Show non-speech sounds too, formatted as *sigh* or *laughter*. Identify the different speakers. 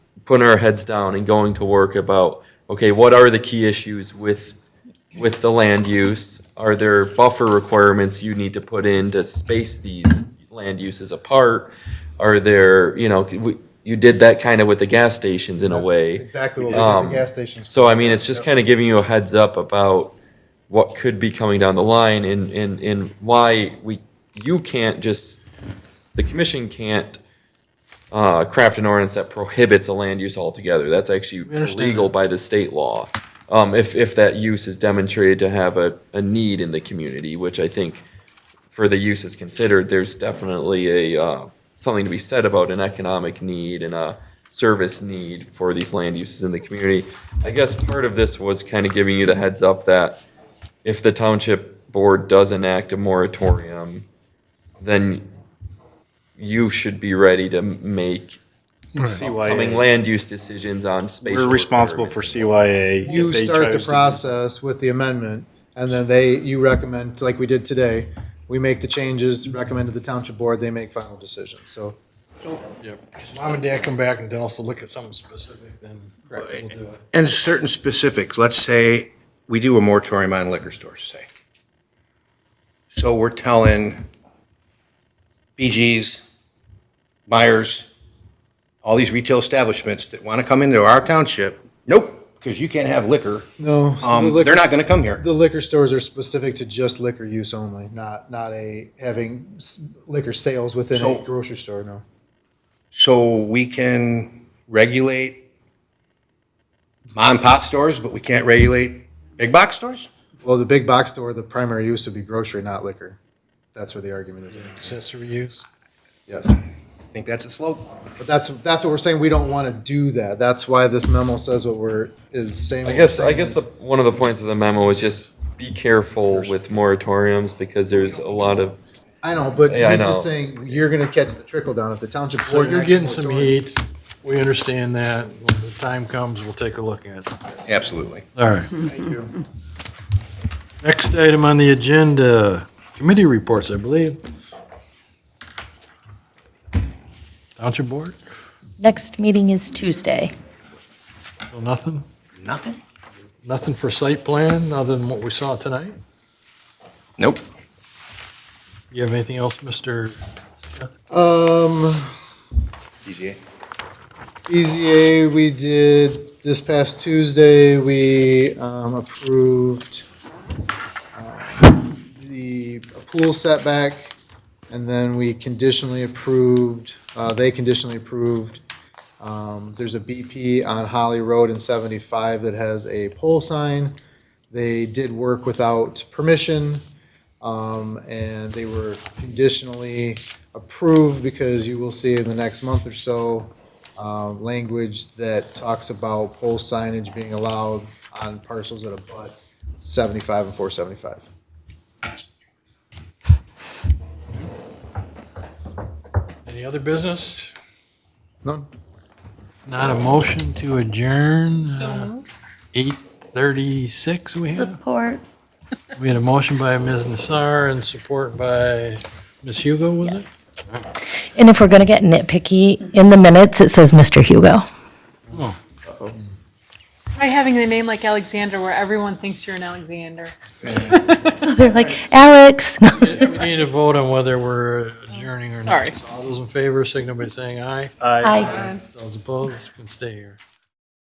Speaker 1: putting our heads down and going to work about, okay, what are the key issues with, with the land use? Are there buffer requirements you need to put in to space these land uses apart? Are there, you know, we- you did that kind of with the gas stations in a way. Um,
Speaker 2: Exactly what we did at the gas stations.
Speaker 1: So I mean, it's just kind of giving you a heads up about what could be coming down the line and, and, and why we, you can't just, the commission can't uh, craft an ordinance that prohibits a land use altogether. That's actually
Speaker 2: understand
Speaker 1: illegal by the state law. Um, if, if that use is demonstrated to have a, a need in the community, which I think for the uses considered, there's definitely a, uh, something to be said about an economic need and a service need for these land uses in the community. I guess part of this was kind of giving you the heads up that if the township board does enact a moratorium, then you should be ready to make coming
Speaker 3: CYA.
Speaker 1: land use decisions on space.
Speaker 3: We're responsible for CYA. if
Speaker 2: You
Speaker 3: they
Speaker 2: start the
Speaker 3: chose to-
Speaker 2: process with the amendment, and then they, you recommend, like we did today, we make the changes, recommend to the township board, they make final decisions, so.
Speaker 4: Does mom and dad come back and tell us to look at something specific, then correct, we'll do it.
Speaker 5: And certain specifics, let's say we do a moratorium on liquor stores, say. So we're telling BG's, Myers, all these retail establishments that want to come into our township, nope, because you can't have liquor.
Speaker 2: No. so the
Speaker 5: Um,
Speaker 2: liquor-
Speaker 5: they're not going to come here.
Speaker 2: The liquor stores are specific to just liquor use only, not, not a, having s- liquor sales within a
Speaker 5: So-
Speaker 2: grocery store, no.
Speaker 5: So we can regulate mom and pop stores, but we can't regulate big box stores?
Speaker 2: Well, the big box store, the primary use would be grocery, not liquor. That's where the argument is,
Speaker 4: accessory use.
Speaker 2: yes.
Speaker 5: I think that's a slope.
Speaker 2: But that's, that's what we're saying, we don't want to do that. That's why this memo says what we're, is saying.
Speaker 1: I guess, I guess the, one of the points of the memo was just be careful with moratoriums because there's a lot of,
Speaker 2: I know, but
Speaker 1: Yeah, I
Speaker 2: he's just
Speaker 1: know.
Speaker 2: saying, you're going to catch the trickle down if the township.
Speaker 4: So
Speaker 2: board
Speaker 4: you're
Speaker 2: acts
Speaker 4: getting some
Speaker 2: moratorium.
Speaker 4: heat, we understand that, when the time comes, we'll take a look at it.
Speaker 5: Absolutely.
Speaker 4: All right. Thank you. Next item on the agenda, committee reports, I believe. Township Board,
Speaker 6: Next meeting is Tuesday.
Speaker 4: so nothing?
Speaker 5: Nothing?
Speaker 4: Nothing for site plan, other than what we saw tonight?
Speaker 5: Nope.
Speaker 4: You have anything else, Mr.?
Speaker 2: Um,
Speaker 5: DGA.
Speaker 2: BZA, we did, this past Tuesday, we um, approved um, the pool setback, and then we conditionally approved, uh, they conditionally approved, um, there's a BP on Holly Road and 75 that has a pole sign. They did work without permission, um, and they were conditionally approved because you will see in the next month or so, um, language that talks about pole signage being allowed on parcels that abut 75 and 475.
Speaker 4: Any other business?
Speaker 2: None?
Speaker 4: Not a motion to adjourn, Uh, eight thirty-six we have.
Speaker 6: Support.
Speaker 4: We had a motion by Ms. Nassar and support by Ms. Hugo, was it?
Speaker 6: And if we're going to get nitpicky, in the minutes, it says Mr. Hugo.
Speaker 7: Try having the name like Alexander where everyone thinks you're an Alexander.
Speaker 6: So *laughs* they're like, *laughs* Alex.
Speaker 4: We need to vote on whether we're adjourning or not.
Speaker 7: Sorry.
Speaker 4: So All those in favor, signal by saying aye.
Speaker 6: Hi.
Speaker 4: Those opposed can stay here.